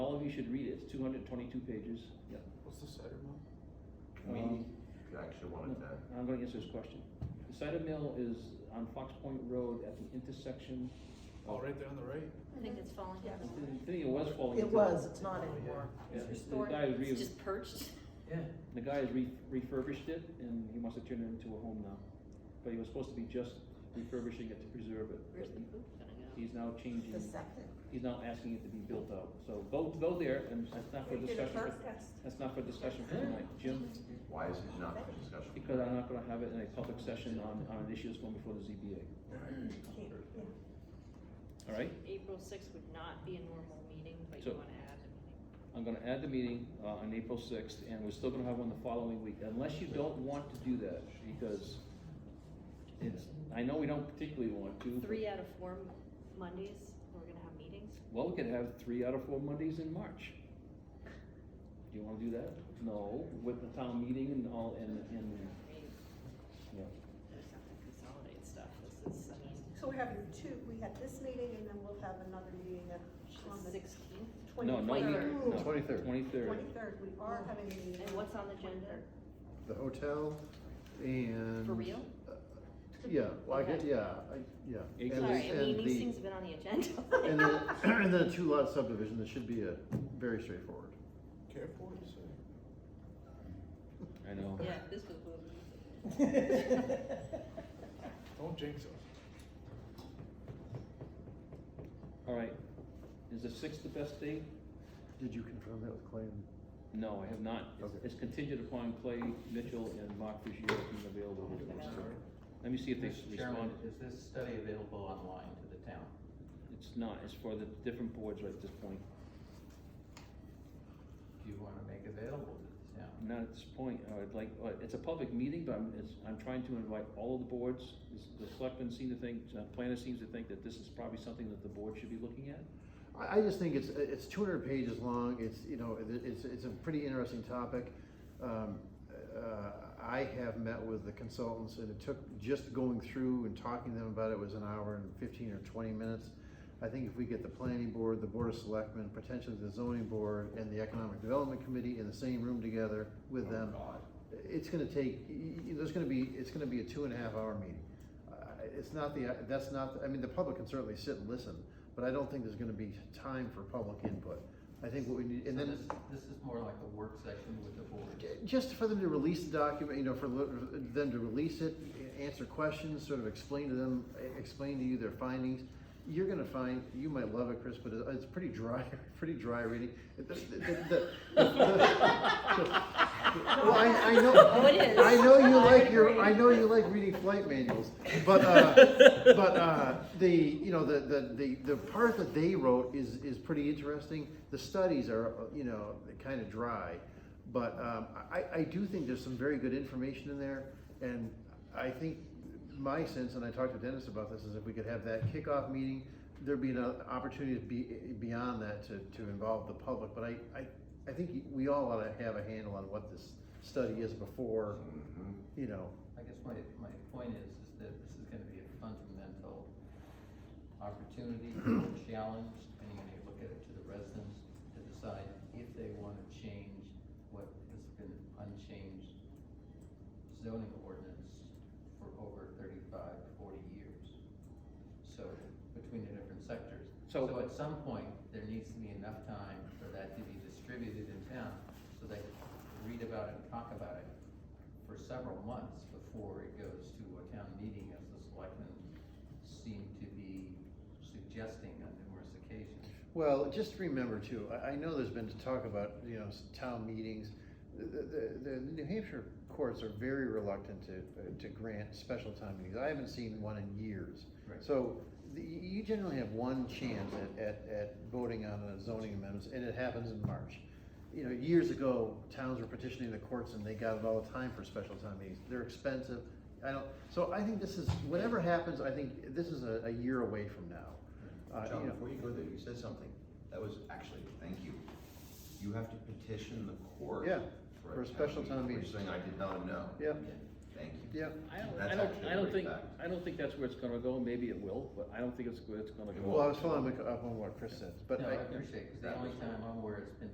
you should read it, it's two hundred twenty-two pages, yeah. What's the cider mill? Um, You actually wanted to, Um, I'm gonna answer this question. The cider mill is on Fox Point Road at the intersection. Oh, right there on the right? I think it's falling down. I think it was falling. It into- was, it's Oh, not anymore. Yeah, It's The restored, guy has re- it's just perched. Yeah, the guy has re- refurbished it and he wants to turn it into a home now. But he was supposed to be just refurbishing it to preserve it. Where's the but poop gonna go? He's now changing, The second. he's now asking it to be built out. So go, go there and that's not for discussion, for- that's not for discussion for tonight. Jim? why is it not for discussion? Because I'm not gonna have it in a public session on, on an issue that's going before the ZBA, all right? April sixth would not be a normal meeting, but you So- wanna add the meeting. I'm gonna add the meeting, uh, on April sixth, and we're still gonna have one the following week, unless you don't want to do that, because it's, I know we don't particularly want to. but- Three out of four Mon- Mondays, we're gonna have meetings. Well, we could have three out of four Mondays in March. Do you wanna do that? No, with the town meeting and all, and, and, I mean, yeah. we just have to consolidate stuff, this is, uh, I mean, So we're having two, we had this meeting and then we'll have another meeting at, on the sixteenth. No, no, Twenty-third. no. Twenty-third. Twenty-third. twenty-third, we are having a meeting. And what's on the agenda? The hotel and. For real? Yeah, well, I get, Okay. yeah, I, yeah. Eggs. And Sorry, I the- mean, and these the- things have been on the agenda. And then, and then a two lot subdivision, this should be a, very straightforward. Careful what you say. I know. Yeah, this was. what- Don't jinx us. All right, is the sixth the best date? Did you confirm that with Clay? No, I have not. It's- Okay. It's contingent upon Clay Mitchell and Mark Ruggiero being available. to do it. Sorry. Let me see if they Mr. Chairman, respond. is this study available online to the town? It's not, it's for the different boards right at this point. Do you wanna make available to the town? Not at this point, I would like, uh, it's a public meeting, but I'm, it's, I'm trying to invite all of the boards. This- The selectmen seem to think, uh, planner seems to think that this is probably something that the board should be looking at. I, I just think it's, it's two hundred pages long, it's, you know, it- it's, it's a pretty interesting topic. Um, uh, I have met with the consultants and it took, just going through and talking to them about it was an hour and fifteen or twenty minutes. I think if we get the planning board, the board of selectmen, potentially the zoning board and the economic development committee in the same room together with Oh, them. God. It's gonna take, y- y- there's gonna be, it's gonna be a two and a half hour meeting. I- It's not the, uh, that's not, I mean, the public can certainly sit and listen, but I don't think there's gonna be time for public input. I think what we need, and So then, This this is more like a work session with the board. just for them to release the document, you know, for li- them to release it, answer questions, sort of explain to them, e, explain to you their findings. You're gonna find, you might love it, Chris, but it- it's pretty dry, pretty dry reading. The- the- the- the- Well, I, I know. Oh, it is. I know you I like would your, agree. I know you like reading flight manuals, but, uh, but, uh, the, you know, the, the, the, the part that they wrote is, is pretty interesting. The studies are, uh, you know, kind of dry, but, um, I, I do think there's some very good information in there. And I think my sense, and I talked to Dennis about this, is if we could have that kickoff meeting, there'd be an opportunity to be, beyond that to, to involve the public, but I, I, I think we all ought to have a handle on what this study is before, Mhm. you know, I guess my, my point is, is that this is gonna be a fundamental opportunity, challenge, and you're gonna look at it to the residents to decide if they wanna change what has been unchanged zoning ordinance for over 35, 40 years. So, between the different sectors. So- at some point, there needs to be enough time for that to be distributed in town, so they can read about it and talk about it for several months before it goes to a town meeting, as the selectmen seem to be suggesting on numerous occasions. Well, just remember too, I, I know there's been talk about, you know, s- town meetings. The, the, the New Hampshire courts are very reluctant to, to grant special town meetings. I haven't seen one in years. Right. So the- you generally have one chance at, at, at voting on a zoning amendments and it happens in March. You know, years ago, towns were petitioning the courts and they got it all the time for special town meetings. They're expensive. I don't, so I think this is, whatever happens, I think this is a, a year away from now. Uh, you John, know. before you go there, you said something, that was actually, thank you. You have to petition the court. Yeah, for a special town Which meeting. thing I did not know. Yeah, Thank yeah. you. I don't, I That's don't, actually I don't pretty think, fact. I don't think that's where it's gonna go, maybe it will, but I don't think it's where it's gonna It go. won't. Well, I was following up on what Chris said, but No, I I, appreciate, because the only time I'm aware is